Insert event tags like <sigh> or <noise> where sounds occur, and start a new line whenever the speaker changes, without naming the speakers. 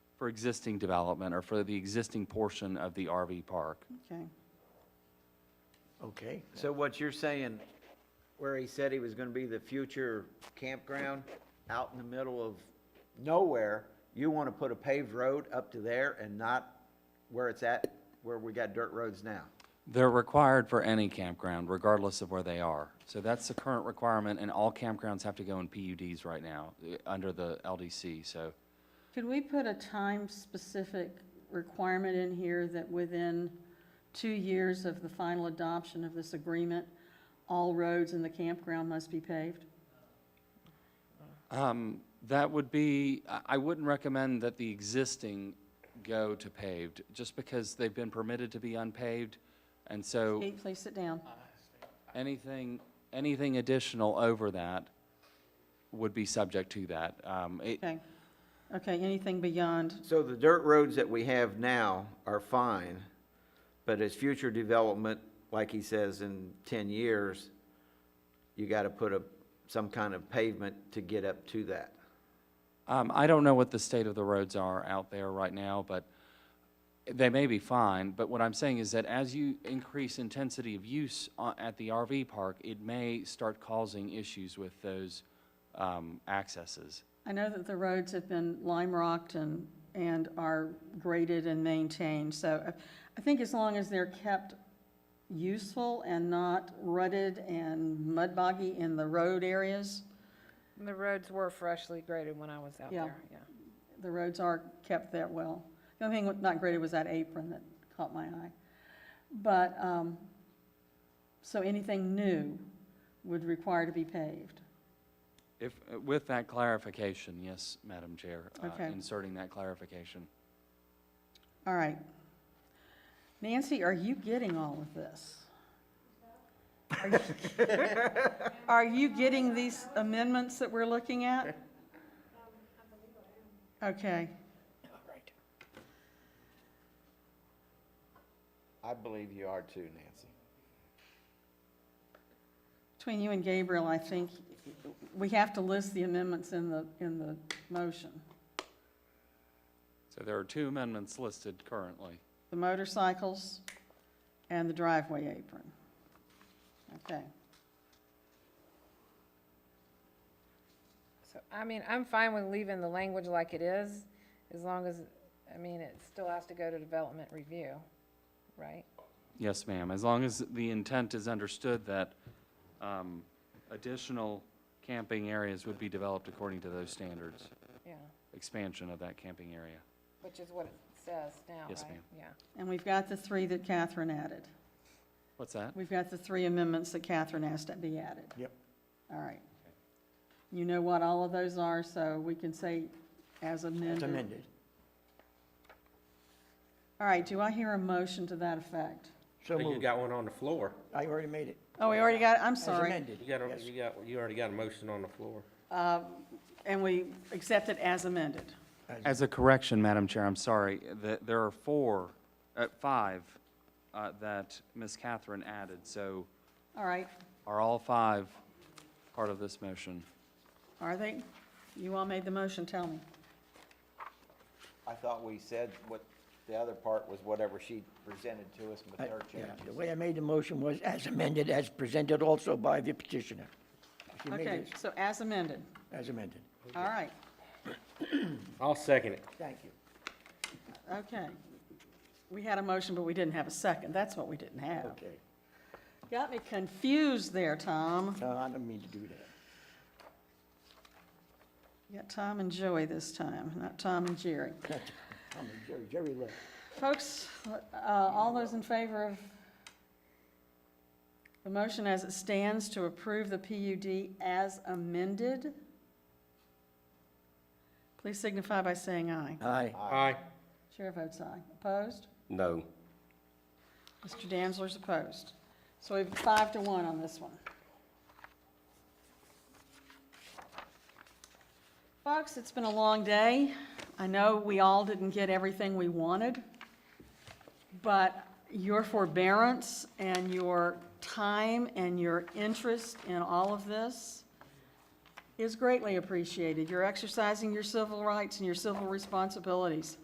for existing development or for the existing portion of the RV park.
Okay.
Okay, so what you're saying, where he said he was gonna be the future campground, out in the middle of nowhere, you wanna put a paved road up to there and not where it's at, where we got dirt roads now?
They're required for any campground, regardless of where they are. So that's the current requirement, and all campgrounds have to go in PUDs right now, eh, under the LDC, so.
Could we put a time-specific requirement in here that within two years of the final adoption of this agreement, all roads in the campground must be paved?
Um, That would be, I- I wouldn't recommend that the existing go to paved, just because they've been permitted to be unpaved. And so
Kate, please sit down.
anything, anything additional over that would be subject to that. Um, it-
Okay. Okay, anything beyond,
So the dirt roads that we have now are fine, but as future development, like he says, in ten years, you gotta put a, some kind of pavement to get up to that.
Um, I don't know what the state of the roads are out there right now, but they may be fine, but what I'm saying is that as you increase intensity of use o- at the RV park, it may start causing issues with those, um, accesses.
I know that the roads have been lime rocked and, and are graded and maintained, so I- I think as long as they're kept useful and not rutted and mud boggy in the road areas,
And The roads were freshly graded when I was out
Yeah.
there, yeah.
the roads are kept that well. The only thing not graded was that apron that caught my eye. But, um, so anything new would require to be paved.
If, with that clarification, yes, Madam Chair. uh,
Okay.
Inserting that clarification.
All right. Nancy, are you getting all of this? Are you- <laughs> Are you getting these amendments that we're looking at? Okay,
I believe you are too, Nancy.
between you and Gabriel, I think we have to list the amendments in the, in the motion.
So there are two amendments listed currently.
The motorcycles and the driveway apron. Okay,
So, I mean, I'm fine with leaving the language like it is, as long as, I mean, it still has to go to development review, right?
Yes, ma'am, as long as the intent is understood that um, additional camping areas would be developed according to those standards,
Yeah,
expansion of that camping area.
which is what it says now, right?
Yes, ma'am.
Yeah.
and we've got the three that Catherine added.
What's that?
We've got the three amendments that Catherine asked to be added.
Yep.
All right. You know what all of those are, so we can say as amended. All right, do I hear a motion to that effect?
I think you got one on the floor.
I already made it.
Oh, we already got, it. I'm sorry.
amended.
You got, a- you got, you already got a motion on the floor.
And we accept it as amended.
As a correction, Madam Chair, I'm sorry, that there are four, uh, five, uh, that Ms. Catherine added, so
All right,
are all five part of this motion?
are they? You all made the motion, tell me.
I thought we said what, the other part was whatever she presented to us with
I-
her
yeah, The
changes.
way I made the motion was as amended, as presented also by the petitioner. She made
Okay,
it
so as amended.
as amended.
All right,
I'll second it.
Thank you.
okay. We had a motion, but we didn't have a second. That's what we didn't have.
Okay.
Got me confused there, Tom.
No, I don't mean to do that. <laughs>
You got Tom and Joey this time, not Tom and Jerry.
I'm a Jerry, Jerry left.
Folks, uh, all those in favor of the motion as it stands to approve the PUD as amended, please signify by saying aye.
Aye.
Aye.
Chair votes aye. Opposed?
No.
Mr. Danzler's opposed. So we have five to one on this one. Folks, it's been a long day. I know we all didn't get everything we wanted, but your forbearance and your time and your interest in all of this is greatly appreciated. You're exercising your civil rights and your civil responsibilities.